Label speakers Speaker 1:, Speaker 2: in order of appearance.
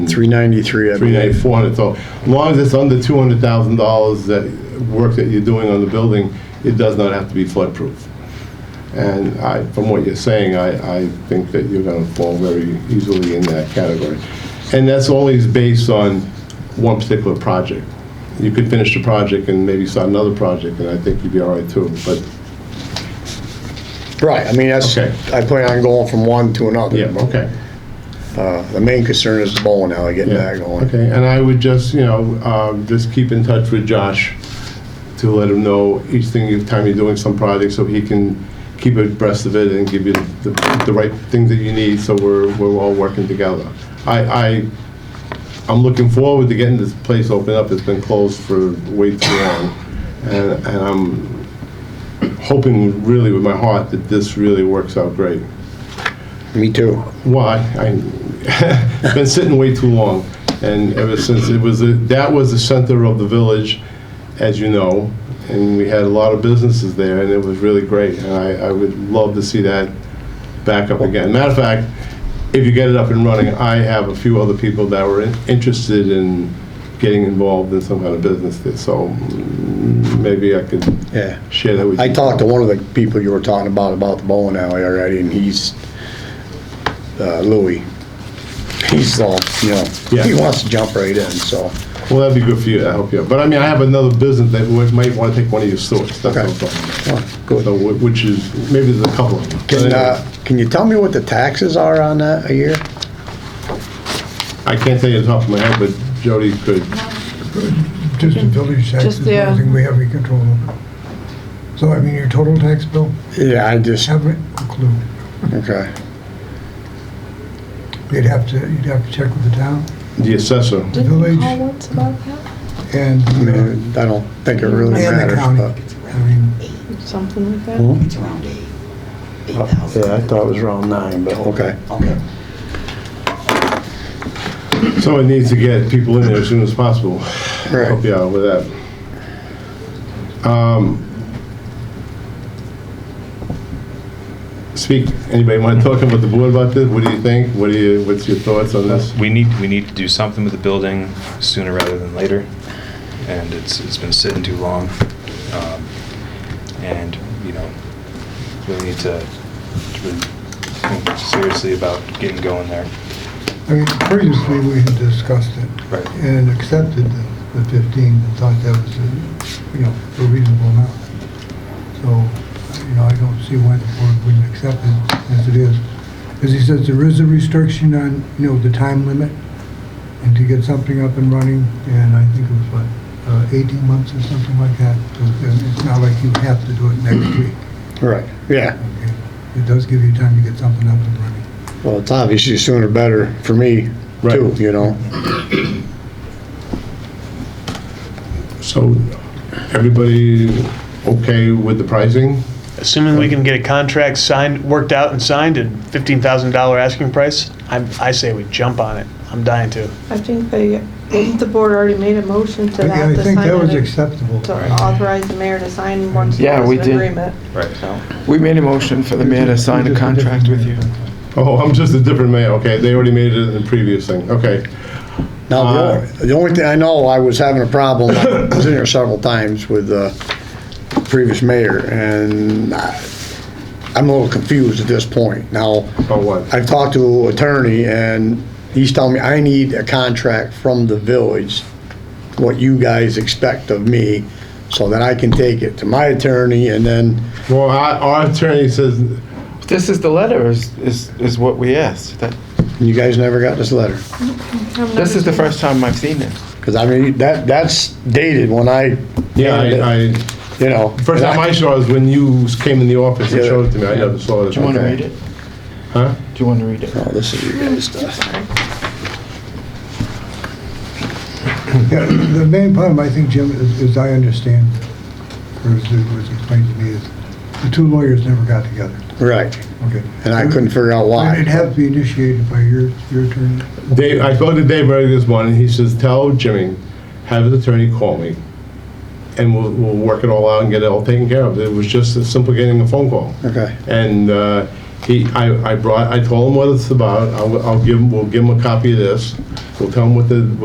Speaker 1: 393, I
Speaker 2: three ninety,
Speaker 1: believe.
Speaker 2: four hundred, so as long as it's under two hundred thousand dollars that work that you're doing on the building, it does not have to be floodproof. And I, from what you're saying, I, I think that you're gonna fall very easily in that category. And that's always based on one particular project. You could finish the project and maybe start another project, and I think you'd be all right too, but
Speaker 1: Right, I mean, that's,
Speaker 2: Okay.
Speaker 1: I plan on going from one to another.
Speaker 2: Yeah, okay.
Speaker 1: Uh, The main concern is the bowling alley, getting
Speaker 2: Yeah,
Speaker 1: that going.
Speaker 2: Okay, and I would just, you know, um, just keep in touch with Josh to let him know each thing, each time you're doing some project, so he can keep abreast of it and give you the, the right things that you need, so we're, we're all working together. I, I, I'm looking forward to getting this place opened up, it's been closed for way too long. And, and I'm hoping really with my heart that this really works out great.
Speaker 1: Me too.
Speaker 2: Why? I, it's been sitting way too long, and ever since it was, a- that was the center of the village, as you know, and we had a lot of businesses there, and it was really great, and I, I would love to see that back up again. Matter of fact, if you get it up and running, I have a few other people that were in- interested in getting involved in some kind of business there, so mm, maybe I could
Speaker 1: Yeah.
Speaker 2: share that with you.
Speaker 1: I talked to one of the people you were talking about, about the bowling alley already, and he's, uh, Louis. He's, uh, you know, he
Speaker 2: Yeah.
Speaker 1: wants to jump right in, so.
Speaker 2: Well, that'd be good for you, that'd help you out. But I mean, I have another business that we might want to take one of your stores, that's what I'm
Speaker 1: Okay.
Speaker 2: talking about.
Speaker 1: oh,
Speaker 2: So,
Speaker 1: Good.
Speaker 2: wh- which is, maybe there's a couple of them.
Speaker 1: Can, uh, can you tell me what the taxes are on that a year?
Speaker 2: I can't tell you off the top of my head, but Jody could.
Speaker 3: Just the village taxes,
Speaker 4: Just, yeah.
Speaker 3: nothing we have any control over. So I mean, your total tax bill,
Speaker 1: Yeah, I just,
Speaker 3: haven't a clue.
Speaker 1: okay.
Speaker 3: You'd have to, you'd have to check with the town
Speaker 2: The assessor.
Speaker 4: Didn't we
Speaker 3: Village.
Speaker 4: call once about that?
Speaker 3: and,
Speaker 1: I mean,
Speaker 3: uh,
Speaker 1: I don't think it really
Speaker 3: and the
Speaker 1: matters, but.
Speaker 3: county. I mean,
Speaker 4: Something like that?
Speaker 5: It's around eight, eight thousand.
Speaker 1: Yeah, I thought it was around nine, but okay.
Speaker 5: Okay.
Speaker 2: So it needs to get people in there as soon as possible.
Speaker 1: Right.
Speaker 2: Help you out with that. Um, Speak, anybody want to talk about the board about this? What do you think? What do you, what's your thoughts on this?
Speaker 6: We need, we need to do something with the building sooner rather than later, and it's, it's been sitting too long. Um, And, you know, we need to to really think seriously about getting going there.
Speaker 3: I mean, previously, we had discussed it.
Speaker 6: Right.
Speaker 3: And accepted the- the 15 and thought that was, a, you know, a reasonable amount. So, you know, I don't see why the board wouldn't accept it as it is. As he says, there is a restriction on, you know, the time limit and to get something up and running, and I think it was, what, uh, 18 months or something like that. So, and It's not like you have to do it next week.
Speaker 1: Right, yeah.
Speaker 3: okay? It does give you time to get something up and running.
Speaker 1: Well, it's obviously sooner better for me, too,
Speaker 2: Right.
Speaker 1: you know?
Speaker 2: So, everybody okay with the pricing?
Speaker 7: Assuming we can get a contract signed, worked out and signed at $15,000 asking price, I, I say we jump on it. I'm dying to.
Speaker 4: I think they, didn't the board already made a motion to
Speaker 3: I-
Speaker 4: that,
Speaker 3: I
Speaker 4: to
Speaker 3: think
Speaker 4: sign
Speaker 3: that was
Speaker 4: an-
Speaker 3: acceptable.
Speaker 4: to authorize the mayor to sign once
Speaker 8: Yeah,
Speaker 4: there was
Speaker 8: we
Speaker 4: an
Speaker 8: did.
Speaker 4: agreement.
Speaker 6: Right.
Speaker 8: We made a motion for the mayor to sign a contract with you.
Speaker 2: Oh, I'm just a different mayor, okay, they already made it in the previous thing, okay.
Speaker 1: Now, the
Speaker 2: Uh,
Speaker 1: only- the only thing I know, I was having a problem, I was in there several times with uh, the previous mayor, and I- I'm a little confused at this point. Now,
Speaker 2: Oh, what?
Speaker 1: I've talked to attorney, and he's telling me I need a contract from the village, what you guys expect of me, so that I can take it to my attorney, and then,
Speaker 2: Well, our- our attorney says,
Speaker 8: This is the letter, is, is, is what we asked. That-
Speaker 1: you guys never got this letter.
Speaker 4: I've
Speaker 8: This
Speaker 4: never
Speaker 8: is the
Speaker 4: seen
Speaker 8: first time I've seen it.
Speaker 1: Because I mean, that, that's dated when I.
Speaker 2: yeah, I,
Speaker 1: You know.
Speaker 2: I, first
Speaker 1: and
Speaker 2: time I saw it was when you came in the office and showed it to me, I never saw it.
Speaker 8: Do you want to read it?
Speaker 2: Huh?
Speaker 8: Do you want to read it?
Speaker 1: Oh, this is your guys' stuff.
Speaker 3: Yeah, the main problem, I think, Jim, is, as I understand, or as it was explained to me, is the two lawyers never got together,
Speaker 1: Right,
Speaker 3: okay?
Speaker 1: and I couldn't figure out
Speaker 3: It'd
Speaker 1: why.
Speaker 3: have to be initiated by your, your attorney.
Speaker 2: Dave, I spoke to Dave earlier this morning, he says, tell Jimmy, have his attorney call me, and we'll, we'll work it all out and get it all taken care of, it was just as simple getting a phone call.
Speaker 1: Okay,
Speaker 2: And uh, He, I, I brought, I told him what it's about, I'll, I'll give him, we'll give him a copy of this, we'll tell him what the,